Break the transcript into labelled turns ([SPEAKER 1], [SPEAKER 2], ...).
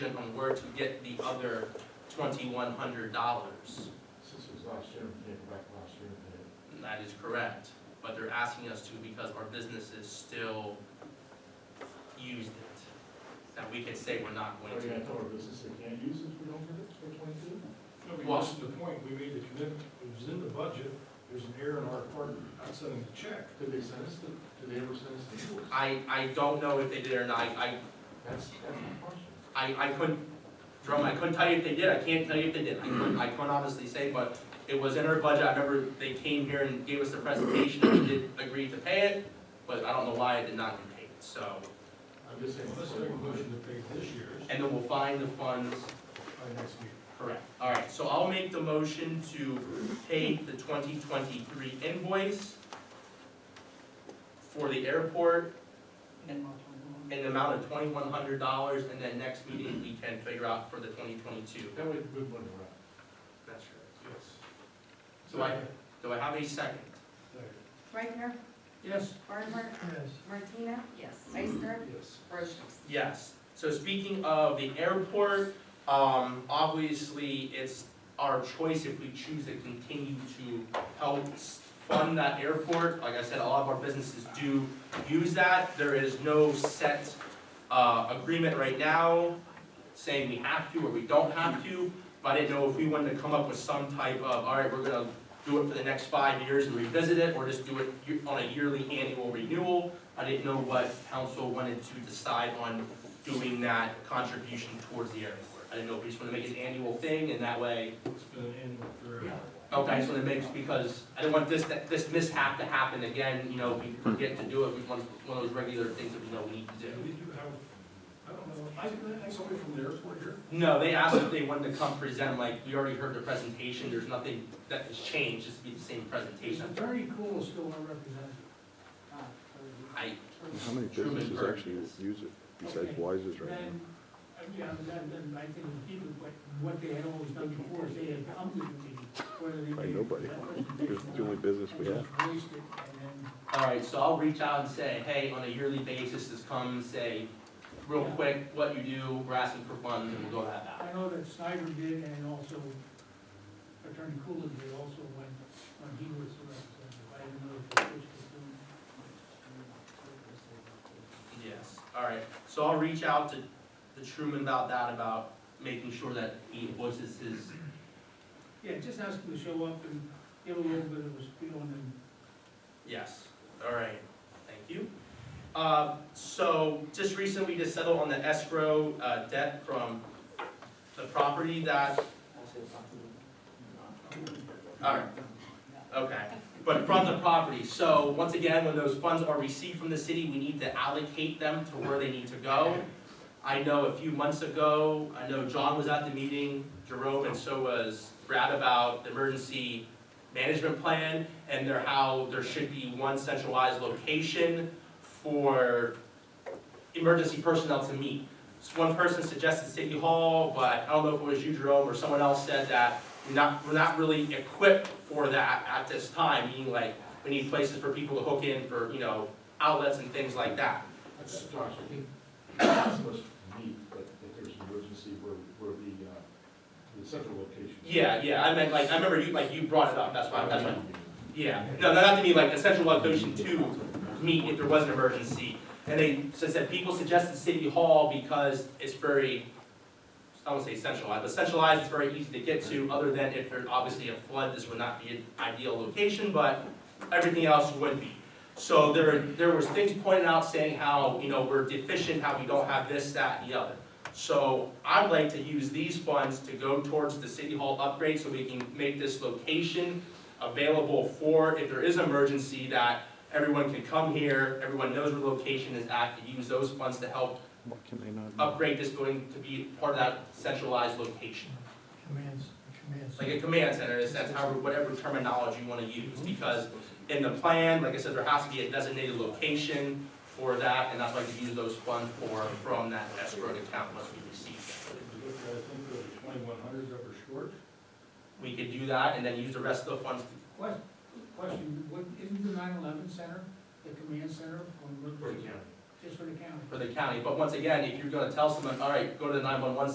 [SPEAKER 1] gentlemen were to get the other twenty-one hundred dollars.
[SPEAKER 2] Since it was last year, we paid it back last year, we paid it.
[SPEAKER 1] That is correct, but they're asking us to because our businesses still used it. That we can say we're not
[SPEAKER 2] Are
[SPEAKER 1] going
[SPEAKER 2] we
[SPEAKER 1] to.
[SPEAKER 2] gonna tell our business they can't use it if we don't get it for twenty-two?
[SPEAKER 3] No, we
[SPEAKER 1] Well-
[SPEAKER 3] missed the point, we made the commitment, it was in the budget, there's an error in our part, not sending the check.
[SPEAKER 2] Did they send us the, did they ever send us the invoice?
[SPEAKER 1] I, I don't know if they did or not, I,
[SPEAKER 2] That's, that's my question.
[SPEAKER 1] I, I couldn't, Jerome, I couldn't tell you if they did, I can't tell you if they did, I couldn't, I couldn't honestly say, but it was in our budget, I remember they came here and gave us the presentation, and we did agree to pay it, but I don't know why it did not get paid, so.
[SPEAKER 2] I'm just saying.
[SPEAKER 3] Let's make a motion to pay this year's
[SPEAKER 1] And then we'll find the funds
[SPEAKER 3] by next week.
[SPEAKER 1] Correct. All right, so I'll make the motion to pay the twenty twenty-three invoice for the airport in the amount of twenty-one hundred dollars, and then next meeting, we can figure out for the twenty twenty-two.
[SPEAKER 2] That way, we wouldn't have.
[SPEAKER 1] That's right.
[SPEAKER 3] Yes.
[SPEAKER 1] Do I, do I have a second?
[SPEAKER 4] Reichner,
[SPEAKER 1] Yes.
[SPEAKER 4] Barnhart,
[SPEAKER 3] Yes.
[SPEAKER 4] Martina. Yes. Ister,
[SPEAKER 3] Yes.
[SPEAKER 4] Brochus.
[SPEAKER 1] Yes. So speaking of the airport, um, obviously, it's our choice if we choose to continue to help s- fund that airport. Like I said, a lot of our businesses do use that. There is no set, uh, agreement right now saying we have to or we don't have to. But I didn't know if we wanted to come up with some type of, all right, we're gonna do it for the next five years and revisit it, or just do it ye- on a yearly annual renewal. I didn't know what council wanted to decide on doing that contribution towards the airport. I didn't know if we just wanna make it an annual thing, and that way,
[SPEAKER 3] It's been an annual forever.
[SPEAKER 1] okay, so it makes, because I didn't want this, that- this mishap to happen again, you know, we forget to do it, we want one of those regular things that we know we need to
[SPEAKER 3] Yeah,
[SPEAKER 1] do.
[SPEAKER 3] we do have, I don't know, I, I think somebody from the airport here.
[SPEAKER 1] No, they asked if they wanted to come present, like, we already heard the presentation, there's nothing that has changed, it's be the same presentation.
[SPEAKER 3] Attorney Cool is still our representative.
[SPEAKER 1] I,
[SPEAKER 5] How many
[SPEAKER 1] Truman
[SPEAKER 5] businesses
[SPEAKER 1] Burger
[SPEAKER 5] actually
[SPEAKER 1] is-
[SPEAKER 5] use it besides Wise's right now?
[SPEAKER 6] Then, uh, yeah, then, then I think even what, what they had always done before is they had come to the meeting, whether they.
[SPEAKER 5] By
[SPEAKER 6] did-
[SPEAKER 5] nobody.
[SPEAKER 6] that wasn't
[SPEAKER 5] It's the only business we
[SPEAKER 6] And
[SPEAKER 5] have.
[SPEAKER 6] just waste it, and then
[SPEAKER 1] All right, so I'll reach out and say, hey, on a yearly basis, just come and say, real
[SPEAKER 6] Yeah.
[SPEAKER 1] quick, what you do, we're asking for funds, and we'll go have that.
[SPEAKER 6] I know that Snyder did and also Attorney Coolin did also when, when he was the representative. I didn't know if it was doing.
[SPEAKER 1] Yes, all right, so I'll reach out to the Truman about that, about making sure that he voices his,
[SPEAKER 6] Yeah, just ask him to show up and give a little bit of a spiel and then
[SPEAKER 1] yes, all right, thank you. Uh, so, just recently, we just settled on the escrow, uh, debt from the property that Alright, okay, but from the property, so once again, when those funds are received from the city, we need to allocate them to where they need to go. I know a few months ago, I know John was at the meeting, Jerome, and so was Brad about the emergency management plan, and there, how there should be one centralized location for emergency personnel to meet. So One person suggested City Hall, but I don't know if it was you, Jerome, or someone else said that we're not, we're not really equipped for that at this time, meaning like, we need places for people to hook in for, you know, outlets and things like that.
[SPEAKER 2] That's, Josh, I think, not so much me, but if there's an emergency where, where the, uh, the central location.
[SPEAKER 1] Yeah, yeah, I meant like, I remember you, like, you brought it up, that's why, that's why, yeah. No, not to me, like, a central location to meet if there was an emergency. And they said, said people suggested City Hall because it's very, I won't say centralized, but centralized is very easy to get to, other than if there's obviously a flood, this would not be an ideal location, but everything else would be. So there, there was things pointed out saying how, you know, we're deficient, how we don't have this, that, and the other. So I'd like to use these funds to go towards the city hall upgrade so we can make this location available for, if there is emergency, that everyone can come here, everyone knows where location is at, to use those funds to help
[SPEAKER 5] What can they not do?
[SPEAKER 1] upgrade this building to be part of that centralized location.
[SPEAKER 6] commands, commands.
[SPEAKER 1] Like a command center, in a sense, however, whatever terminology you wanna use, because in the plan, like I said, there has to be a designated location for that, and that's why we use those funds for, from that escrow account once we receive it.
[SPEAKER 3] If you look at, I think, the twenty-one hundred that we're short.
[SPEAKER 1] We could do that and then use the rest of the funds. to-
[SPEAKER 6] Question, question, what, isn't the nine eleven center, the command center on Route
[SPEAKER 1] For the county.
[SPEAKER 6] Just for the county?
[SPEAKER 1] For the county, but once again, if you're gonna tell someone, all right, go to the nine-one-one